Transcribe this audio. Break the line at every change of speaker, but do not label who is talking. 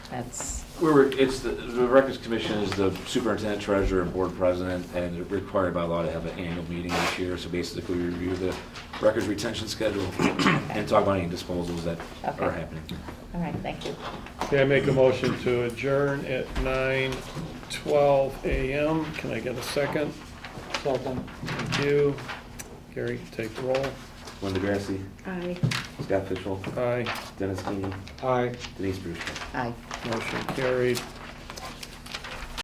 That's,
We were, it's, the the Records Commission is the superintendent, treasurer, and board president, and they're required by law to have an annual meeting each year. So basically, we review the records retention schedule and talk about any disposals that are
Okay.
happening.
all right, thank you.
Okay, I make a motion to adjourn at 9:12 a.m. Can I get a second?
Second.
Thank you. Gary, take the roll.
Linda Grassi,
Aye.
Scott Fishel,
Aye,
Dennis Keeney,
Aye.
Denise Brewster.
Aye.
motion carried.